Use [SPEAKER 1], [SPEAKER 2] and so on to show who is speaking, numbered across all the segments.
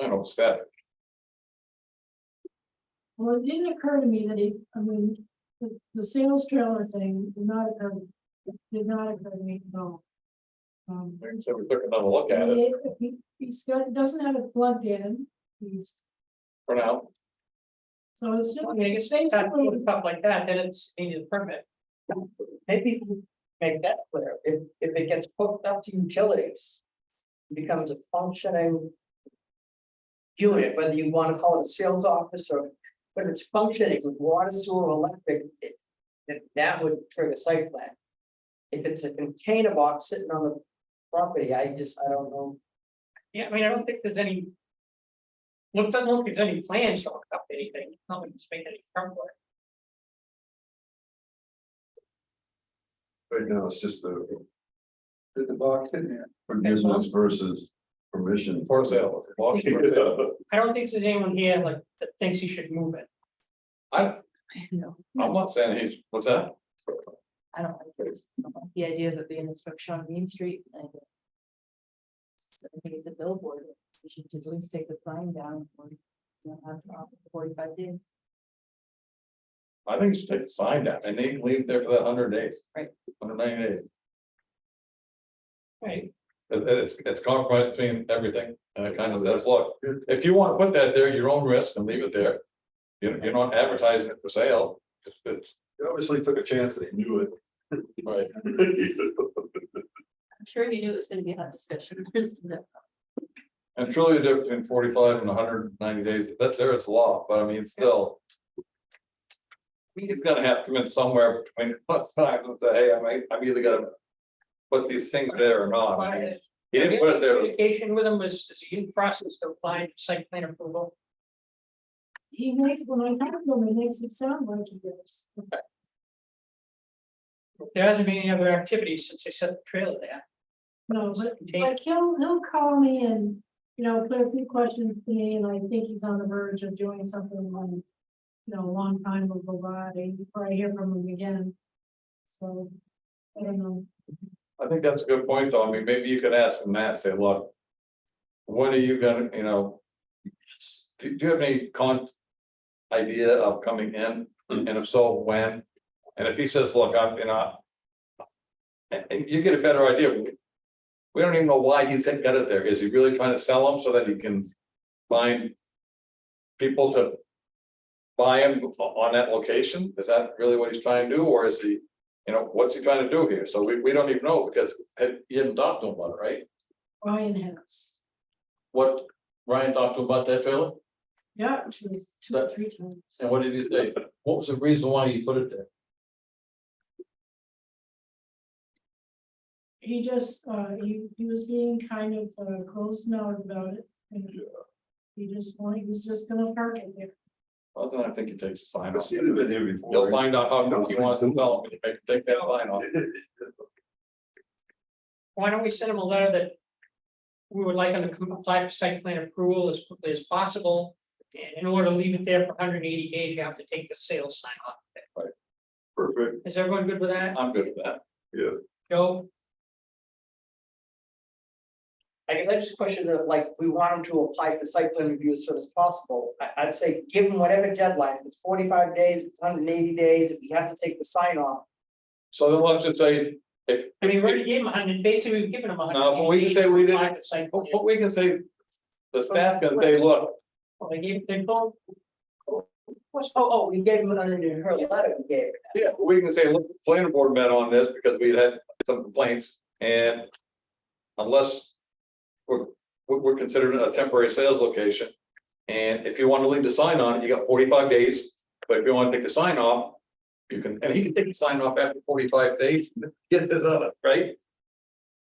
[SPEAKER 1] I don't static.
[SPEAKER 2] Well, it didn't occur to me that he, I mean, the, the sales trailer thing did not occur, did not occur to me at all. Um,
[SPEAKER 1] Like I said, we took another look at it
[SPEAKER 2] he, he- he's got, doesn't have it plugged in, he's,
[SPEAKER 1] for now.
[SPEAKER 2] so it's just.
[SPEAKER 3] I mean, I guess based on stuff like that, then it's needed a permit.
[SPEAKER 4] Maybe we make that clear, if, if it gets hooked up to utilities. it Becomes a functioning. Unit, whether you wanna call it a sales office or, but it's functioning with water, sewer, electric, it, that, that would trigger site plan. If it's a container box sitting on the property, I just, I don't know,
[SPEAKER 3] Yeah, I mean, I don't think there's any. Well, it doesn't look like there's any plans to hook up anything, nothing to make any trouble.
[SPEAKER 5] Right now, it's just the
[SPEAKER 1] Did the box in there?
[SPEAKER 5] forgiveness versus permission.
[SPEAKER 1] For sale. it's a box for sale.
[SPEAKER 3] I don't think there's anyone here like that thinks he should move it.
[SPEAKER 1] I,
[SPEAKER 6] No,
[SPEAKER 1] I'm not saying he's, what's that?
[SPEAKER 6] I don't like this. The idea of it being inspection on Main Street. I don't. So I think it's a billboard. We should at least take the sign down for, you know, after forty-five days.
[SPEAKER 1] I think you should take the sign down and they can leave there for that hundred days.
[SPEAKER 6] Right.
[SPEAKER 1] Hundred ninety days.
[SPEAKER 3] Right,
[SPEAKER 1] It- it's, it's compromised between everything and it kind of says, look, if you want to put that there, at your own risk and leave it there. You're, you're not advertising it for sale. It's- it's-
[SPEAKER 5] They Obviously took a chance that he knew
[SPEAKER 1] Right.
[SPEAKER 5] it.
[SPEAKER 6] I'm sure he knew it was gonna be a hot discussion.
[SPEAKER 1] And truly the difference between forty-five and hundred and ninety days, that's there, it's law, but I mean, still. I mean, He's gonna have to come in somewhere between plus times and say, hey, I might, I'm either gonna. Put these things there or not. I mean, He didn't put it there.
[SPEAKER 3] Communication with him was, is a huge process to apply for site plan approval.
[SPEAKER 2] He makes, when I talk to him, he makes it sound like he does.
[SPEAKER 3] There hasn't been any other activities since they set the trailer there.
[SPEAKER 2] No,
[SPEAKER 3] It's
[SPEAKER 2] but
[SPEAKER 3] contained.
[SPEAKER 2] Like he'll, he'll call me and, you know, put a few questions to me and I think he's on the verge of doing something like. You know, a long time will go by before I hear from him again. So, I don't know.
[SPEAKER 1] I think that's a good point, though. I mean, maybe you could ask them that, say, look. What are you gonna, you know? Do, do you have any con? Idea of coming in, and if so, when? And if he says, look, I'm, you know. And, and you get a better idea. of- We don't even know why he's got it there. Is he really trying to sell them so that he can find? People to. Buy him on that location? Is that really what he's trying to do, or is he? you know, what's he trying to do here? So we, we don't even know because had- he hadn't talked to him about it, right?
[SPEAKER 2] Brian has,
[SPEAKER 1] What Ryan talked to him about that trailer
[SPEAKER 2] yeah, which was two or three times.
[SPEAKER 1] and what did he say? What was the reason why he put it there?
[SPEAKER 2] He just, uh, he, he was being kind of, uh, close-mouthed about it. and He just wanted, he was just gonna park it there.
[SPEAKER 1] Well, then I think he takes a sign
[SPEAKER 5] I've
[SPEAKER 1] off.
[SPEAKER 5] seen it in here before.
[SPEAKER 1] You'll find out how he wants to sell him. and Take that line off.
[SPEAKER 3] Why don't we send him a letter that? We would like him to come apply for site plan approval as quickly as possible. And in order to leave it there for hundred and eighty days, you have to take the sales sign off.
[SPEAKER 5] Perfect,
[SPEAKER 3] Is everyone good with that?
[SPEAKER 1] I'm good with that.
[SPEAKER 3] Joe?
[SPEAKER 4] I guess I just question that, like, we want them to apply for site plan review as soon as possible, I, I'd say give them whatever deadline, if it's forty-five days, if it's hundred and eighty days, if he has to take the sign off.
[SPEAKER 1] So then let's just say, if,
[SPEAKER 3] I mean, we already gave him hundred, basically, we've given him hundred.
[SPEAKER 1] No, but we can say we didn't-
[SPEAKER 3] Site plan.
[SPEAKER 1] what we can say, the staff can say, look,
[SPEAKER 3] Well, They gave, they told,
[SPEAKER 4] What's- oh, oh, we gave him it under her letter, we gave. her.
[SPEAKER 1] Yeah, we can say, look, the planning board met on this because we had some complaints and unless we're, we're we're considering a temporary sales location. And if you want to leave the sign on, you got forty-five days, but if you want to take the sign off, you can, and he can take the sign off after forty-five days, get his other, right?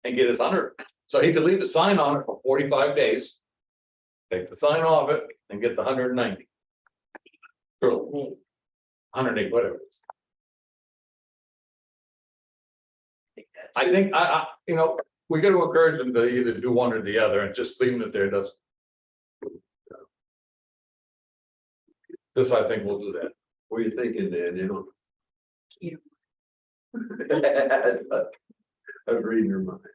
[SPEAKER 1] And get his hundred. So he could leave the sign on it for forty-five days. Take the sign off it and get the hundred and ninety. True. Hundred eight, whatever it is. I think, I, I, you know, we gotta encourage them to either do one or the other, and just leaving it there doesn't. This, I think, will do that.
[SPEAKER 5] what are you thinking, Dan, you know?
[SPEAKER 6] You.
[SPEAKER 5] I was reading your mind.